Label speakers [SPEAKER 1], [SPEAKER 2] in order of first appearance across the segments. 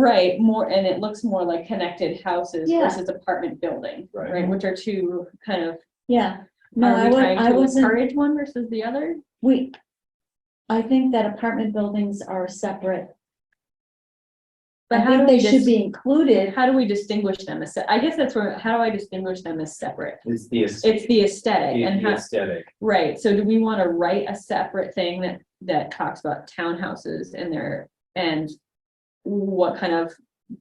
[SPEAKER 1] Right, more, and it looks more like connected houses
[SPEAKER 2] Yeah.
[SPEAKER 1] versus apartment building,
[SPEAKER 3] Right.
[SPEAKER 1] right, which are two kind of,
[SPEAKER 2] Yeah, no,
[SPEAKER 1] are
[SPEAKER 2] I
[SPEAKER 1] we
[SPEAKER 2] wa- I
[SPEAKER 1] trying to
[SPEAKER 2] wasn't,
[SPEAKER 1] encourage one versus the other?
[SPEAKER 2] we, I think that apartment buildings are separate.
[SPEAKER 1] But
[SPEAKER 2] I
[SPEAKER 1] how do
[SPEAKER 2] think
[SPEAKER 1] we
[SPEAKER 2] they should
[SPEAKER 1] just,
[SPEAKER 2] be included.
[SPEAKER 1] how do we distinguish them as, se- I guess that's where, how do I distinguish them as separate?
[SPEAKER 3] It's the. aes-
[SPEAKER 1] It's the
[SPEAKER 3] the-
[SPEAKER 1] aesthetic and
[SPEAKER 3] the
[SPEAKER 1] how,
[SPEAKER 3] Aesthetic.
[SPEAKER 1] right, so do we wanna write a separate thing that, that talks about townhouses and their, and what kind of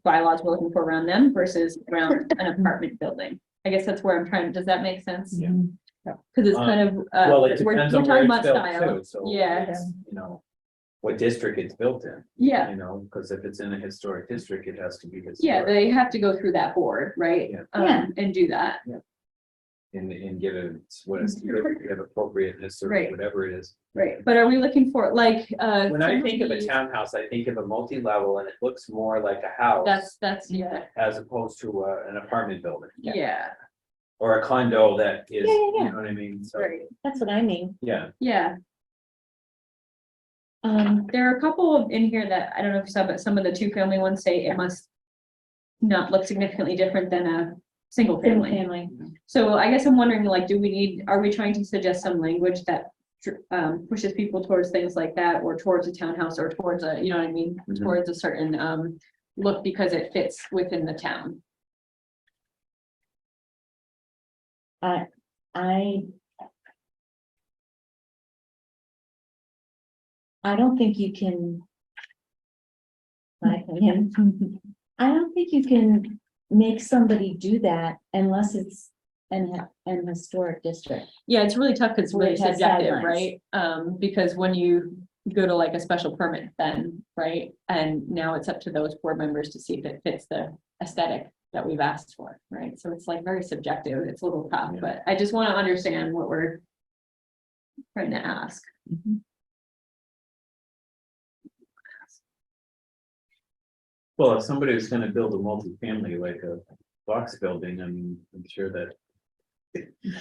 [SPEAKER 1] bylaws we're looking for around them versus around an apartment building? I guess that's where I'm trying, does that make sense?
[SPEAKER 3] Yeah.
[SPEAKER 1] Cause it's
[SPEAKER 3] Um,
[SPEAKER 1] kind of, uh,
[SPEAKER 3] Well, it
[SPEAKER 1] we're, we're
[SPEAKER 3] depends on where
[SPEAKER 1] talking
[SPEAKER 3] it's
[SPEAKER 1] about
[SPEAKER 3] built
[SPEAKER 1] style.
[SPEAKER 3] too, so.
[SPEAKER 1] Yeah.
[SPEAKER 3] it's, You know, what district it's built in,
[SPEAKER 1] Yeah,
[SPEAKER 3] you know, because if it's in a historic district, it has to be
[SPEAKER 1] yeah,
[SPEAKER 3] historic
[SPEAKER 1] they have to go through that board, right?
[SPEAKER 3] Yeah.
[SPEAKER 1] Um,
[SPEAKER 2] Yeah.
[SPEAKER 1] And do that.
[SPEAKER 3] and, and give it what is, give it appropriateness or
[SPEAKER 1] Right.
[SPEAKER 3] whatever it is.
[SPEAKER 1] Right. But are we looking for, like, uh?
[SPEAKER 3] When I think of a
[SPEAKER 1] somebody-
[SPEAKER 3] townhouse, I think of a multi-level and it looks more like a house
[SPEAKER 1] That's, that's, yeah,
[SPEAKER 3] as opposed to uh, an apartment building
[SPEAKER 1] yeah,
[SPEAKER 3] or a condo that
[SPEAKER 2] Yeah, yeah,
[SPEAKER 3] is, you
[SPEAKER 2] yeah.
[SPEAKER 3] know what I mean? So,
[SPEAKER 1] right,
[SPEAKER 2] That's what I mean.
[SPEAKER 3] yeah,
[SPEAKER 1] yeah.
[SPEAKER 2] Um,
[SPEAKER 1] There are a couple of in here that, I don't know if you saw, but some of the two-family ones say it must not look significantly different than a single
[SPEAKER 2] single
[SPEAKER 1] family.
[SPEAKER 2] family.
[SPEAKER 1] So I guess I'm wondering, like, do we need, are we trying to suggest some language that dr- um, pushes people towards things like that or towards a townhouse or towards a, you know what I mean?
[SPEAKER 3] Mhm.
[SPEAKER 1] Towards a certain, um, look because it fits within the town.
[SPEAKER 2] I. I don't think you can. My opinion, I don't think you can make somebody do that unless it's an, an historic district.
[SPEAKER 1] Yeah, it's really tough because it's
[SPEAKER 2] Where it
[SPEAKER 1] really
[SPEAKER 2] has
[SPEAKER 1] subjective,
[SPEAKER 2] guidelines.
[SPEAKER 1] right? Um, because when you go to like a special permit then, right? And now it's up to those board members to see if it fits the aesthetic that we've asked for, right? So it's like very subjective. It's a little tough,
[SPEAKER 3] Yeah.
[SPEAKER 1] but I just want to understand what we're trying to ask.
[SPEAKER 3] Well, if somebody was gonna build a multifamily like a box building, I'm, I'm sure that.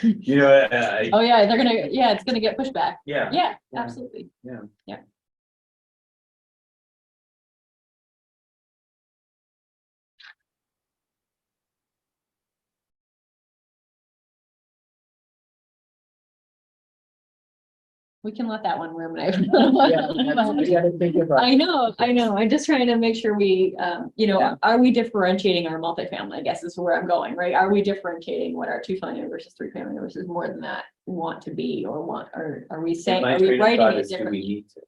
[SPEAKER 3] You know, I, I-
[SPEAKER 1] Oh, yeah, they're gonna, yeah, it's gonna get pushback.
[SPEAKER 3] yeah,
[SPEAKER 1] Yeah,
[SPEAKER 3] Yeah.
[SPEAKER 1] absolutely.
[SPEAKER 3] Yeah.
[SPEAKER 1] Yeah. We can let that one room. I know, I know. I'm just trying to make sure we, um, you
[SPEAKER 3] Yeah.
[SPEAKER 1] know, are we differentiating our multifamily? I guess is where I'm going, right? Are we differentiating what our two-family versus three-family versus more than that want to be or want, or are we saying,
[SPEAKER 3] My
[SPEAKER 1] are we
[SPEAKER 3] train of
[SPEAKER 1] writing
[SPEAKER 3] thought
[SPEAKER 1] it
[SPEAKER 3] is, do we
[SPEAKER 1] differently?
[SPEAKER 3] need to?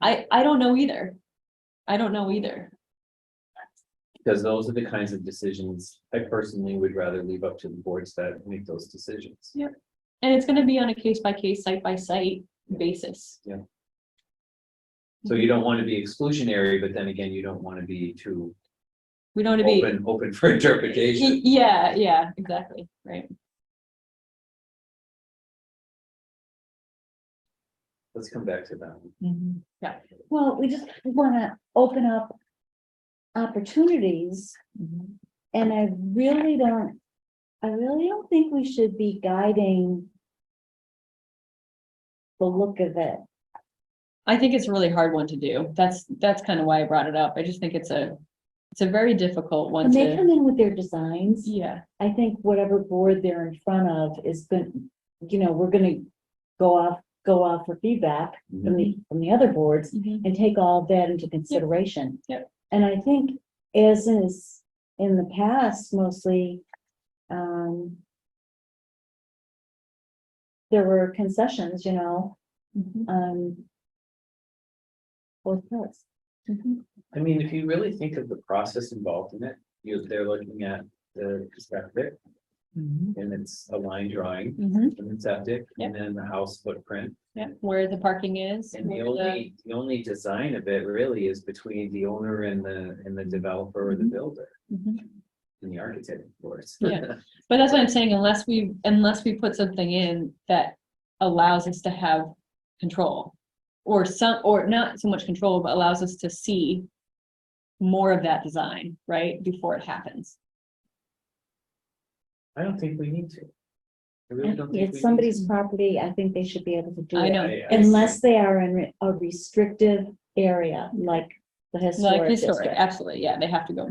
[SPEAKER 1] I, I don't know either. I don't know either.
[SPEAKER 3] Because those are the kinds of decisions I personally would rather leave up to the boards that make those decisions.
[SPEAKER 1] And it's gonna be on a case by case, site by site basis.
[SPEAKER 3] So you don't want to be exclusionary, but then again, you don't want to be too
[SPEAKER 1] We don't wanna be,
[SPEAKER 3] open, open for interpretation.
[SPEAKER 1] Y- yeah, yeah, exactly, right.
[SPEAKER 3] Let's come back to that. one.
[SPEAKER 2] Mm-hmm.
[SPEAKER 1] Yeah.
[SPEAKER 2] Well, we just wanna open up opportunities.
[SPEAKER 3] Mm-hmm.
[SPEAKER 2] And I really don't, I really don't think we should be guiding the look of it.
[SPEAKER 1] I think it's a really hard one to do. That's, that's kind of why I brought it up. I just think it's a, it's a very difficult one
[SPEAKER 2] When they
[SPEAKER 1] to,
[SPEAKER 2] come in with their designs,
[SPEAKER 1] yeah,
[SPEAKER 2] I think whatever board they're in front of is gonna, you know, we're gonna go off, go off for feedback from the, from the other boards
[SPEAKER 3] Mm-hmm.
[SPEAKER 2] and take all that into consideration.
[SPEAKER 1] Yep.
[SPEAKER 2] And I think as is in the past mostly, um, there were concessions, you know,
[SPEAKER 3] Mm-hmm.
[SPEAKER 2] um, both parts.
[SPEAKER 3] I mean, if you really think of the process involved in it, you, they're looking at the septic and it's a line drawing. And it's septic and then the house footprint.
[SPEAKER 1] Yeah, where the parking is.
[SPEAKER 3] And the
[SPEAKER 1] where the-
[SPEAKER 3] only, the only design of it really is between the owner and the, and the developer or the builder
[SPEAKER 1] Mhm.
[SPEAKER 3] and the architect, of course.
[SPEAKER 1] Yeah. But that's what I'm saying, unless we, unless we put something in that allows us to have control. Or some, or not so much control, but allows us to see more of that design, right, before it happens.
[SPEAKER 3] I don't think we need to. I really don't think. we
[SPEAKER 2] It's
[SPEAKER 3] need
[SPEAKER 2] somebody's property, I think they should be able to do
[SPEAKER 1] I
[SPEAKER 2] it.
[SPEAKER 1] know.
[SPEAKER 3] to. I- I-
[SPEAKER 2] Unless they are in re- a restrictive area, like The
[SPEAKER 1] Like
[SPEAKER 2] historic
[SPEAKER 1] historic,
[SPEAKER 2] district.
[SPEAKER 1] absolutely, yeah, they have to go